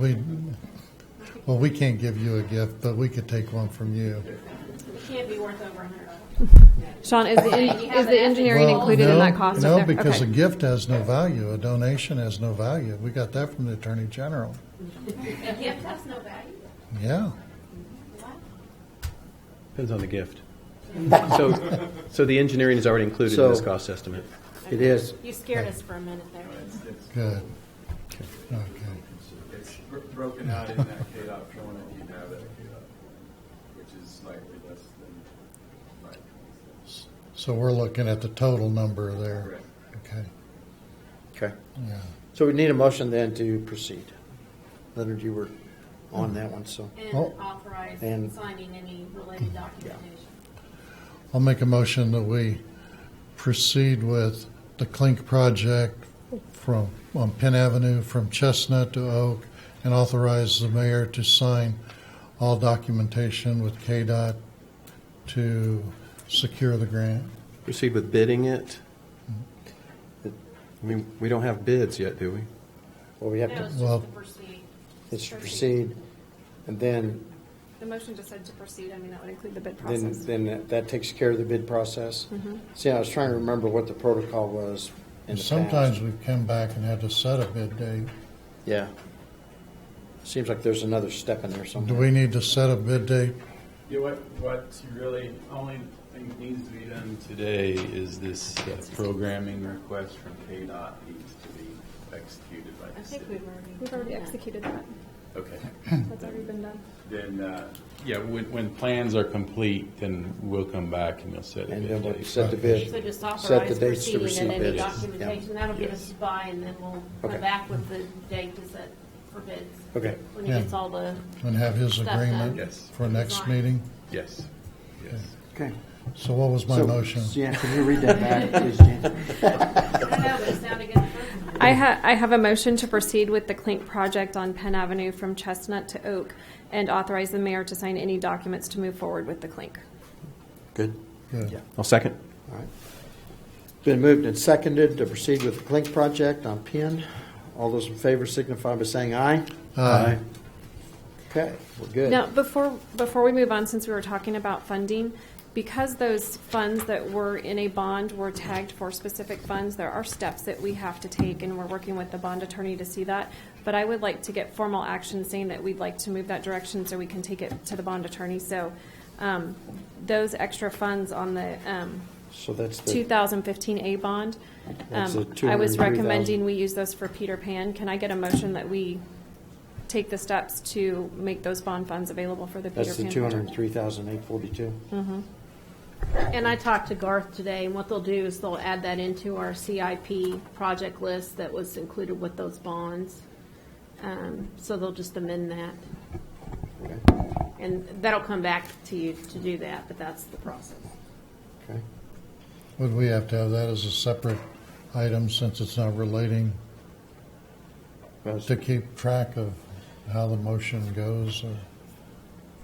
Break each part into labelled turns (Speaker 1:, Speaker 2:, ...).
Speaker 1: We, well, we can't give you a gift, but we could take one from you.
Speaker 2: It can't be worth over a hundred dollars.
Speaker 3: Sean, is the,
Speaker 2: You
Speaker 3: en-
Speaker 2: have
Speaker 3: is the
Speaker 2: an
Speaker 3: engineering
Speaker 1: Well,
Speaker 3: included in
Speaker 1: no,
Speaker 3: that cost?
Speaker 1: No,
Speaker 3: up there?
Speaker 1: because a
Speaker 3: Okay.
Speaker 1: gift has no value. A donation has no value. We got that from the Attorney General.
Speaker 2: A gift has no value.
Speaker 1: Yeah.
Speaker 4: Depends on the gift. So, so the engineering is already included in this
Speaker 5: So-
Speaker 4: cost estimate.
Speaker 5: It is.
Speaker 2: You scared us for a minute there.
Speaker 1: Good. Okay.
Speaker 6: It's bro- broken out in that KDOT form that you have at KDOT, which is slightly less than five twenty-six.
Speaker 1: So we're looking at the total number there.
Speaker 6: Correct.
Speaker 1: Okay.
Speaker 5: Okay.
Speaker 1: Yeah.
Speaker 5: So we need a motion then to proceed. Leonard, you were on that one, so.
Speaker 2: And
Speaker 1: Oh.
Speaker 2: authorize
Speaker 5: And-
Speaker 2: signing any related documentation.
Speaker 1: I'll make a motion that we proceed with the Clink project from, on Penn Avenue from Chestnut to Oak and authorize the mayor to sign all documentation with KDOT to secure the grant.
Speaker 4: Proceed with bidding it. I mean, we don't have bids yet, do we?
Speaker 5: Well, we have
Speaker 2: No, it's
Speaker 5: to,
Speaker 2: just
Speaker 1: Well-
Speaker 2: to proceed.
Speaker 5: it's to proceed. And then,
Speaker 7: The motion just said to proceed, I mean, that would include the bid
Speaker 5: then,
Speaker 7: process.
Speaker 5: then that- that takes care of the bid process.
Speaker 2: Mm-hmm.
Speaker 5: See, I was trying to remember what the protocol was in the past.
Speaker 1: Sometimes we've come back and had to set a bid date.
Speaker 5: Yeah. Seems like there's another step in there
Speaker 1: Do
Speaker 5: somewhere.
Speaker 1: we need to set a bid date?
Speaker 6: Yeah, what, what you really, only thing that needs to be done today is this uh, programming request from KDOT needs to be executed by
Speaker 2: I
Speaker 6: the
Speaker 2: think
Speaker 6: city.
Speaker 2: we've already.
Speaker 7: We've already executed that,
Speaker 6: Okay,
Speaker 7: that's already been done.
Speaker 6: then, uh, yeah, when, when plans are complete, then we'll come back and we'll set a
Speaker 5: And
Speaker 6: bid
Speaker 5: then we'll
Speaker 6: date.
Speaker 5: set the bid.
Speaker 2: So just
Speaker 5: Set the
Speaker 2: authorize
Speaker 5: dates to
Speaker 2: proceeding
Speaker 5: receive
Speaker 2: and any
Speaker 5: bids. Yeah.
Speaker 2: documentation. That'll give us
Speaker 6: Yes.
Speaker 2: a buy and then we'll
Speaker 5: Okay.
Speaker 2: come back with the date to set for bids.
Speaker 5: Okay.
Speaker 2: When he
Speaker 1: Yeah.
Speaker 2: gets all the,
Speaker 1: And have his
Speaker 2: Set that.
Speaker 1: agreement
Speaker 6: Yes.
Speaker 1: for next meeting?
Speaker 6: Yes, yes.
Speaker 5: Okay.
Speaker 1: So what was my
Speaker 5: So,
Speaker 1: motion?
Speaker 5: Jan, can you read that back, please, Jan?
Speaker 2: I don't know, but it sounded good. at first.
Speaker 3: I, ha- I have a motion to proceed with the Clink project on Penn Avenue from Chestnut to Oak and authorize the mayor to sign any documents to move forward with the Clink.
Speaker 5: Good.
Speaker 1: Good.
Speaker 5: Yeah.
Speaker 4: I'll second.
Speaker 5: All right. It's Been moved and seconded to proceed with the Clink project on Penn. All those in favor signify by saying aye.
Speaker 1: Aye.
Speaker 5: Okay, we're good.
Speaker 3: Now, before, before we move on, since we were talking about funding, because those funds that were in a bond were tagged for specific funds, there are steps that we have to take, and we're working with the bond attorney to see that. But I would like to get formal action saying that we'd like to move that direction so we can take it to the bond attorney. So um, those extra funds on the um,
Speaker 5: So that's the,
Speaker 3: 2015A bond,
Speaker 5: That's
Speaker 3: um,
Speaker 5: the
Speaker 3: I was
Speaker 5: 202,000.
Speaker 3: recommending we use those for Peter Pan. Can I get a motion that we take the steps to make those bond funds available for the Peter
Speaker 5: that's the
Speaker 3: Pan
Speaker 5: two
Speaker 3: project?
Speaker 5: hundred and three thousand eight forty-two.
Speaker 2: And I talked to Garth today, and what they'll do is they'll add that into our CIP project list that was included with those bonds. Um, So they'll just amend that,
Speaker 3: Mm-hmm.
Speaker 5: Okay,
Speaker 2: and that'll come back to you to do that, but that's the process.
Speaker 5: okay.
Speaker 1: Would we have to have that as a separate item since it's not relating
Speaker 5: That's-
Speaker 1: to keep track of how the motion goes or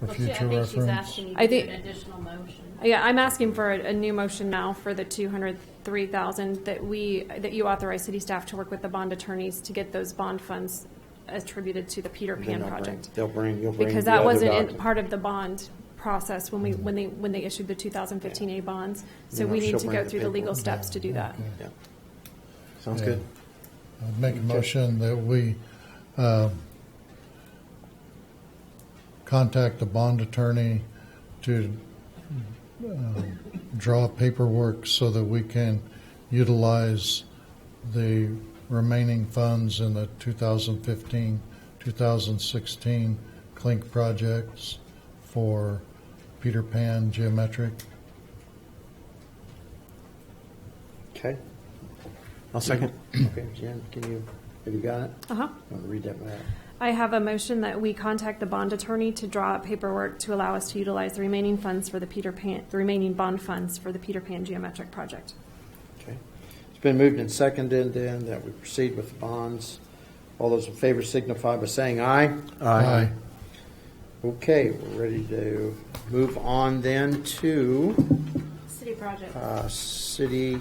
Speaker 1: for
Speaker 2: Well, she-
Speaker 1: future
Speaker 2: I think she's
Speaker 1: reference?
Speaker 2: asking you to
Speaker 3: I
Speaker 2: do
Speaker 3: think-
Speaker 2: an additional motion.
Speaker 3: Yeah, I'm asking for a, a new motion now for the 203,000 that we, that you authorize city staff to work with the bond attorneys to get those bond funds attributed to the Peter
Speaker 5: then
Speaker 3: Pan
Speaker 5: they'll bring-
Speaker 3: project.
Speaker 5: They'll bring, you'll bring.
Speaker 3: Because
Speaker 5: the
Speaker 3: that
Speaker 5: other
Speaker 3: wasn't in-
Speaker 5: doc- Mm-hmm.
Speaker 3: part of the bond process when we, when they, when they issued the 2015A bonds. So
Speaker 5: Yeah,
Speaker 3: we need
Speaker 5: she'll
Speaker 3: to
Speaker 5: bring
Speaker 3: go
Speaker 5: the
Speaker 3: through the legal
Speaker 5: paperwork.
Speaker 3: steps to do that.
Speaker 5: Yeah. Sounds
Speaker 1: Yeah.
Speaker 5: good.
Speaker 1: I'd make a motion that we um, contact the bond attorney to um, draw paperwork so that we can utilize the remaining funds in the 2015, 2016 Clink projects for Peter Pan Geometric.
Speaker 5: Okay,
Speaker 4: I'll second.
Speaker 5: okay, Jen, can you, have you got it?
Speaker 3: Uh-huh.
Speaker 5: I'm gonna read that back.
Speaker 3: I have a motion that we contact the bond attorney to draw up paperwork to allow us to utilize the remaining funds for the Peter Pan, the remaining bond funds for the Peter Pan geometric project.
Speaker 5: Okay. It's been moved and seconded then that we proceed with the bonds. All those in favor signify by saying aye.
Speaker 1: Aye.
Speaker 5: Okay, we're ready to move on then to
Speaker 2: City project,
Speaker 5: uh, city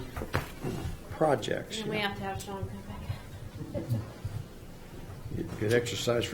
Speaker 5: projects.
Speaker 2: and we have to have Sean come back.
Speaker 5: Good exercise